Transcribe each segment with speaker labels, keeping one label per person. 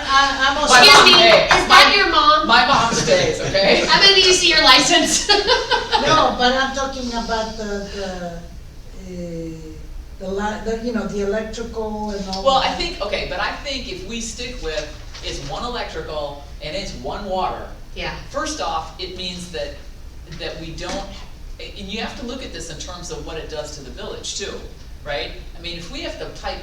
Speaker 1: I, I'm also.
Speaker 2: Excuse me,
Speaker 1: Hey,
Speaker 2: is that your mom?
Speaker 3: My mom stays, okay?
Speaker 2: I'm gonna need to see your license.
Speaker 1: No, but I'm talking about the, the, uh, the li, the, you know, the electrical and all.
Speaker 3: Well, I
Speaker 1: that.
Speaker 3: think, okay, but I think if we stick with, it's one electrical and it's one water,
Speaker 2: Yeah,
Speaker 3: first off, it means that, that we don't, and you have to look at this in terms of what it does to the village too, right? I mean, if we have to pipe,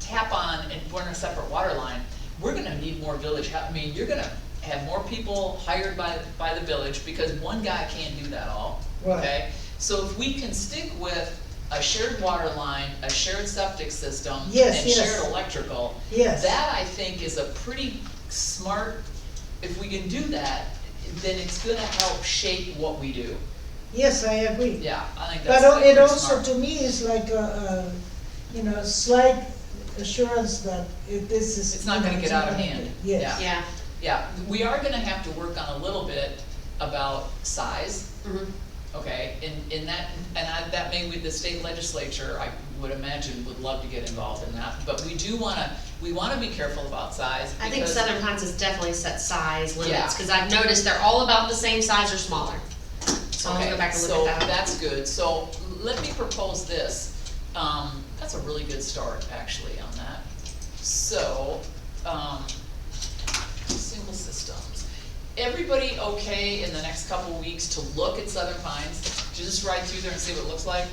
Speaker 3: tap on and run a separate water line, we're gonna need more village, hel- I mean, you're gonna have more people hired by, by the village, because one guy can't do that all,
Speaker 1: Right.
Speaker 3: okay? So if we can stick with a shared water line, a shared septic system,
Speaker 1: Yes,
Speaker 3: and
Speaker 1: yes.
Speaker 3: shared electrical,
Speaker 1: Yes.
Speaker 3: that I think is a pretty smart, if we can do that, then it's gonna help shape what we do.
Speaker 1: Yes, I agree.
Speaker 3: Yeah, I think that's.
Speaker 1: But al- it
Speaker 3: pretty
Speaker 1: also,
Speaker 3: smart.
Speaker 1: to me, is like a, a, you know, slight assurance that it, this is.
Speaker 3: It's not gonna get out of hand.
Speaker 1: Yes,
Speaker 2: yeah.
Speaker 3: Yeah, we are gonna have to work on a little bit about size,
Speaker 2: Mhm.
Speaker 3: okay? And, and that, and I, that may with the state legislature, I would imagine, would love to get involved in that. But we do wanna, we wanna be careful about size
Speaker 2: I think
Speaker 3: because-
Speaker 2: Southern Pines has definitely set size limits,
Speaker 3: Yeah.
Speaker 2: cause I've noticed they're all about the same size or smaller. So I'll
Speaker 3: Okay,
Speaker 2: go back and look at
Speaker 3: So
Speaker 2: that.
Speaker 3: that's good, so let me propose this, um, that's a really good start, actually, on that. So, um, single systems, everybody okay in the next couple weeks to look at Southern Pines? To Just ride through there and see what it looks like?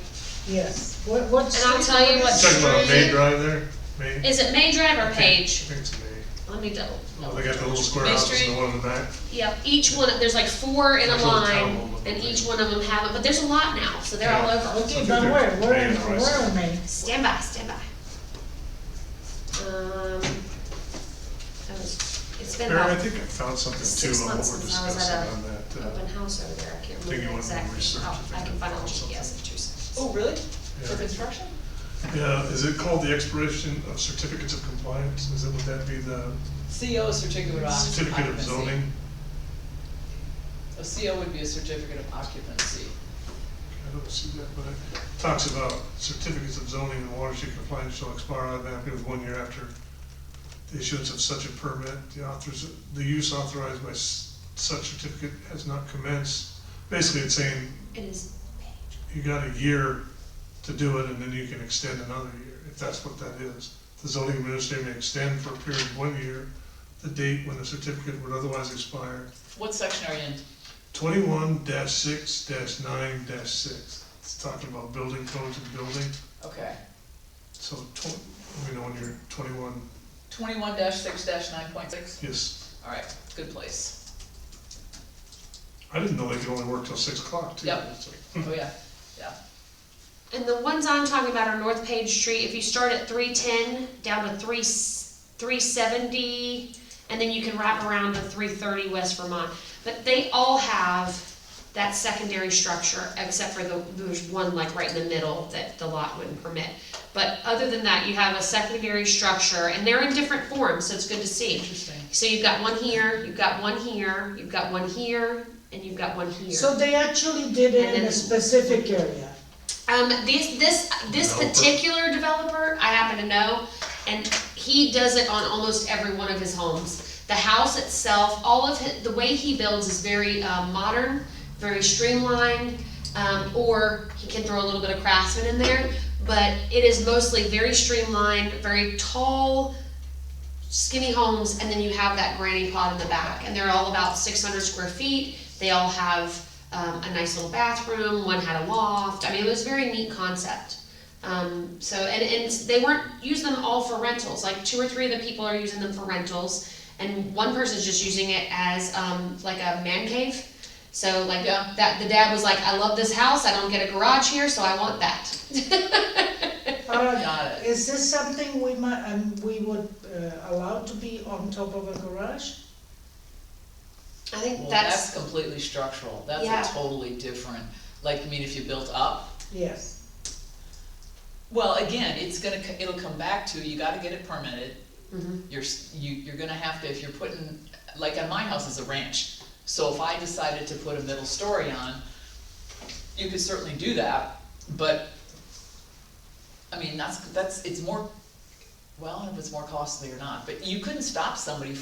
Speaker 1: yes. What, what's.
Speaker 2: And I'll tell you what-
Speaker 4: Talking about May Drive there, May?
Speaker 2: Is it May Drive or
Speaker 4: I think- I
Speaker 2: Page?
Speaker 4: think it's May.
Speaker 2: Let me double.
Speaker 4: Oh, They got the little square
Speaker 3: May
Speaker 4: houses and
Speaker 3: Street?
Speaker 4: the one in the back.
Speaker 2: Yep, each one, there's like four in a
Speaker 4: There's a little town
Speaker 2: line,
Speaker 4: hall up
Speaker 2: and
Speaker 4: there.
Speaker 2: each one of them have it, but there's a lot now, so they're all
Speaker 4: Yeah.
Speaker 2: over.
Speaker 1: Okay, but where, where,
Speaker 4: May and the rest.
Speaker 1: where am I?
Speaker 2: Stand by, stand by. Um, I was, it's been
Speaker 4: Aaron, I
Speaker 2: about
Speaker 4: think I found something
Speaker 2: six
Speaker 4: too on what
Speaker 2: months
Speaker 4: we're
Speaker 2: since I was
Speaker 4: discussing
Speaker 2: at
Speaker 4: on that,
Speaker 2: a
Speaker 4: uh,
Speaker 2: open house over there, I can't
Speaker 4: thing you
Speaker 2: remember
Speaker 4: wanted to
Speaker 2: exactly.
Speaker 4: research,
Speaker 2: Oh,
Speaker 4: if
Speaker 2: I
Speaker 4: you
Speaker 2: can
Speaker 4: can
Speaker 2: find out
Speaker 4: find
Speaker 2: what she
Speaker 4: something.
Speaker 2: has in two seconds.
Speaker 3: Oh, really? For
Speaker 4: Yeah.
Speaker 3: construction?
Speaker 4: yeah, is it called the expiration of certificates of compliance? Is it, would that be the
Speaker 3: CO is certificate of occupancy.
Speaker 4: certificate of zoning?
Speaker 3: A CO would be a certificate of occupancy.
Speaker 4: I don't see that, but it talks about certificates of zoning and watershed compliance shall expire automatically with one year after the issuance of such a permit. The authors, the use authorized by s- such certificate has not commenced. Basically, it's saying
Speaker 2: Oh, It is page.
Speaker 4: you got a year to do it, and then you can extend another year, if that's what that is. The zoning administrator may extend for a period of one year, the date when the certificate would otherwise expire.
Speaker 3: What section are you in?
Speaker 4: Twenty-one six nine six, it's talking about building codes and building,
Speaker 3: Okay.
Speaker 4: so tw- let me know when you're twenty-one,
Speaker 3: Twenty-one six nine point six?
Speaker 4: yes.
Speaker 3: All right, good place.
Speaker 4: I didn't know they could only work till six o'clock, too.
Speaker 3: Yep.
Speaker 4: It's like,
Speaker 3: Oh, yeah, yeah.
Speaker 2: And the ones I'm talking about are North Page Street, if you start at three ten down to three, three seventy, and then you can wrap around to three thirty West Vermont. But they all have that secondary structure, except for the, there's one like right in the middle that the lot wouldn't permit. But other than that, you have a secondary structure, and they're in different forms, so it's good to see.
Speaker 3: Interesting.
Speaker 2: So you've got one here, you've got one here, you've got one here, and you've got one here.
Speaker 1: So they actually did
Speaker 2: And
Speaker 1: it in
Speaker 2: then-
Speaker 1: a specific area.
Speaker 2: Um, this, this, this
Speaker 4: Developer.
Speaker 2: particular developer, I happen to know, and he does it on almost every one of his homes. The house itself, all of hi the way he builds is very, uh, modern, very streamlined, um, or he can throw a little bit of craftsman in there, but it is mostly very streamlined, very tall, skinny homes, and then you have that granny pod in the back, and they're all about six hundred square feet. They all have um, a nice little bathroom. One had a loft. I mean, it was a very neat concept. Um, so, and and they weren't use them all for rentals. Like two or three of the people are using them for rentals, and one person's just using it as um, like a man cave. So like
Speaker 3: Yeah.
Speaker 2: that, the dad was like, "I love this house. I don't get a garage here, so I want that."
Speaker 1: Alright,
Speaker 3: Got it.
Speaker 1: is this something we might, um, we would uh, allow to be on top of a garage?
Speaker 2: I think
Speaker 3: Well,
Speaker 2: that's
Speaker 3: that's completely structural,
Speaker 2: Yeah.
Speaker 3: that's a totally different, like, I mean, if you built up.
Speaker 1: Yes,
Speaker 3: Well, again, it's gonna, co- it'll come back to, you gotta get it permitted,
Speaker 2: Mhm.
Speaker 3: you're, s- you, you're gonna have to, if you're putting, like, on my house is a ranch. So if I decided to put a middle story on, you could certainly do that, but, I mean, that's, that's, it's more, well, I don't know if it's more costly or not, but you couldn't stop somebody